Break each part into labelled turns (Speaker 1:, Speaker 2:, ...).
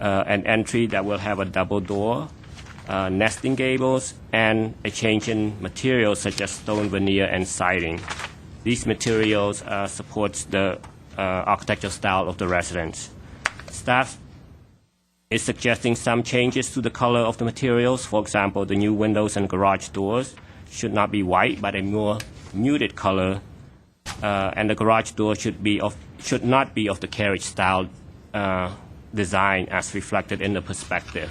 Speaker 1: uh, an entry that will have a double door, uh, nesting gables, and a change in materials such as stone veneer and siding. These materials uh, supports the uh, architectural style of the residence. Staff is suggesting some changes to the color of the materials. For example, the new windows and garage doors should not be white, but a more muted color, uh, and the garage door should be of should not be of the carriage style uh, design as reflected in the perspective.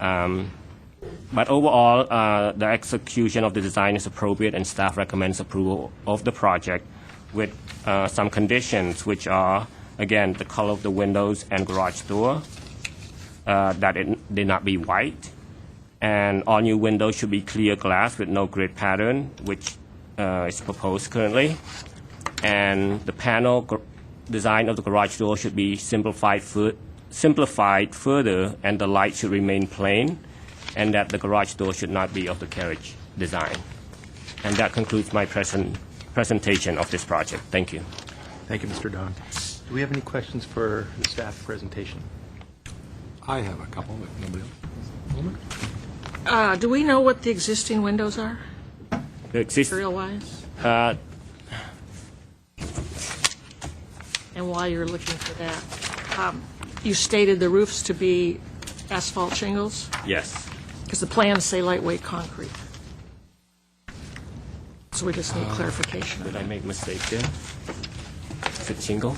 Speaker 1: Um, but overall, uh, the execution of the design is appropriate, and staff recommends approval of the project with uh, some conditions, which are again the color of the windows and garage door, uh, that it did not be white, and all new windows should be clear glass with no grid pattern, which uh, is proposed currently. And the panel gr- design of the garage door should be simplified, fu- simplified further, and the light should remain plain, and that the garage door should not be of the carriage design. And that concludes my present presentation of this project. Thank you.
Speaker 2: Thank you, Mr. Don. Do we have any questions for the staff presentation?
Speaker 3: I have a couple, if nobody else.
Speaker 4: Uh, do we know what the existing windows are,
Speaker 1: The exist-
Speaker 4: material-wise? And while you're looking for that, um, you stated the roofs to be asphalt shingles,
Speaker 1: yes.
Speaker 4: because the plans say lightweight concrete. So we just need clarification on
Speaker 1: Did I
Speaker 4: that.
Speaker 1: make mistake there? Is it shingle?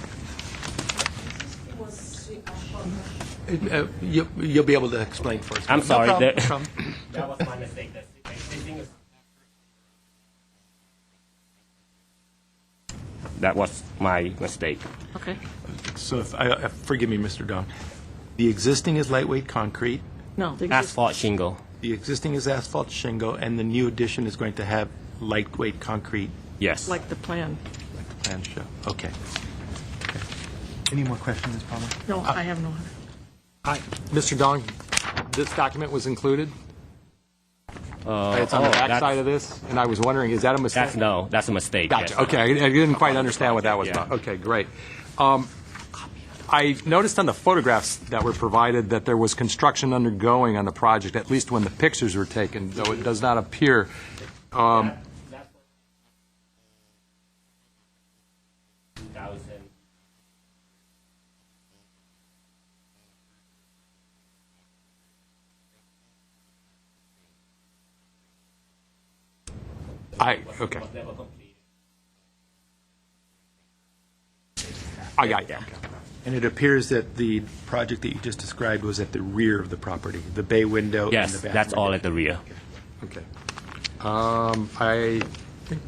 Speaker 2: Uh, you- You'll be able to explain for us.
Speaker 1: I'm
Speaker 2: No
Speaker 1: sorry,
Speaker 2: problem,
Speaker 1: the-
Speaker 2: no problem.
Speaker 1: That was my mistake. That's the existing is- That was my mistake.
Speaker 4: Okay.
Speaker 2: So, if- I- I- forgive me, Mr. Don. The existing is lightweight concrete,
Speaker 4: No, the exist-
Speaker 1: Asphalt shingle.
Speaker 2: the existing is asphalt shingle, and the new addition is going to have lightweight concrete
Speaker 1: Yes.
Speaker 4: like the plan.
Speaker 2: like the plan show. Okay.
Speaker 5: Any more questions, Ms. Palmer?
Speaker 4: No, I have no other.
Speaker 3: Hi, Mr. Don, this document was included? It's on
Speaker 1: oh,
Speaker 3: the
Speaker 1: that's-
Speaker 3: backside of this, and I was wondering, is that a mistake?
Speaker 1: That's no, that's a mistake.
Speaker 3: Gotcha,
Speaker 1: yes.
Speaker 3: okay, I I didn't quite understand what that was
Speaker 1: Yeah.
Speaker 3: about. Okay, great. Um, I noticed on the photographs that were provided that there was construction undergoing on the project, at least when the pictures were taken, though it does not appear. um, I, okay, I got you.
Speaker 2: And it appears that the project that you just described was at the rear of the property, the bay window and the
Speaker 1: Yes,
Speaker 2: bathroom.
Speaker 1: that's all at the rear.
Speaker 3: Okay. Um, I think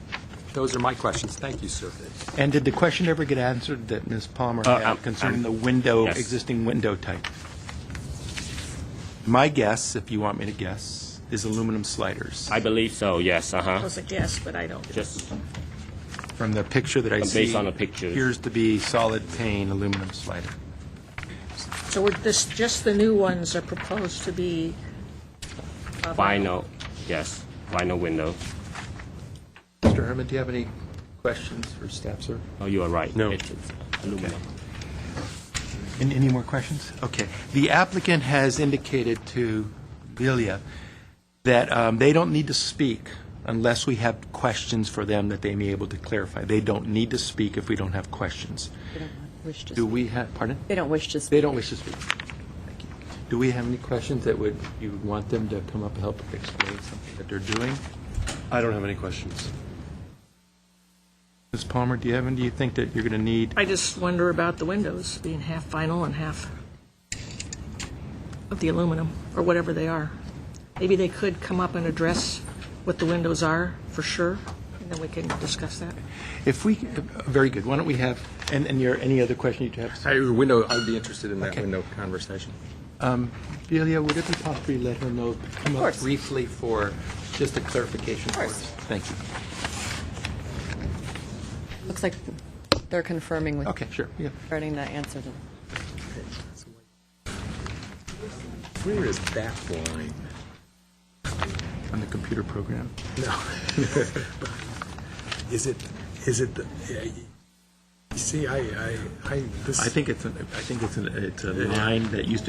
Speaker 3: those are my questions. Thank you, sir.
Speaker 2: And did the question ever get answered that Ms. Palmer
Speaker 1: Uh, um,
Speaker 2: had concerning the window,
Speaker 1: yes.
Speaker 2: existing window type? My guess, if you want me to guess, is aluminum sliders.
Speaker 1: I believe so, yes,
Speaker 4: That
Speaker 1: uh-huh.
Speaker 4: was a guess, but I don't.
Speaker 1: Just,
Speaker 2: From the picture that I
Speaker 1: Based
Speaker 2: see.
Speaker 1: on the pictures.
Speaker 2: Appears to be solid pane aluminum slider.
Speaker 4: So we're, this, just the new ones are proposed to be uh,
Speaker 1: vinyl, yes, vinyl window.
Speaker 2: Mr. Herman, do you have any questions for staff, sir?
Speaker 1: Oh, you are right.
Speaker 2: No.
Speaker 1: It's aluminum.
Speaker 2: An- Any more questions? Okay. The applicant has indicated to Delia that um, they don't need to speak unless we have questions for them that they may be able to clarify. They don't need to speak if we don't have questions.
Speaker 6: They don't wish to
Speaker 2: Do
Speaker 6: speak.
Speaker 2: we have, pardon?
Speaker 6: They don't wish to speak.
Speaker 2: They don't wish to speak. Thank you. Do we have any questions that would, you would want them to come up and help explain something that they're doing?
Speaker 7: I don't have any questions.
Speaker 2: Ms. Palmer, do you have, any? do you think that you're going to need
Speaker 4: I just wonder about the windows being half vinyl and half of the aluminum, or whatever they are. Maybe they could come up and address what the windows are, for sure, and then we can discuss that.
Speaker 2: If we, very good, why don't we have, and, and your, any other question you have?
Speaker 3: I, window, I'd be interested in that
Speaker 2: Okay.
Speaker 3: window conversation.
Speaker 2: Delia, would it be possible to let her know, come up
Speaker 6: course.
Speaker 2: briefly for just a clarification for
Speaker 6: course.
Speaker 2: us? Thank you.
Speaker 6: Looks like they're confirming with,
Speaker 2: Okay, sure, yeah.
Speaker 6: regarding the answer to
Speaker 3: Where is that line?
Speaker 2: On the computer program.
Speaker 7: Is it, is it, the- yeah, you see, I, I, I. this-
Speaker 2: I think it's, an- I think it's, an- it's a line that used to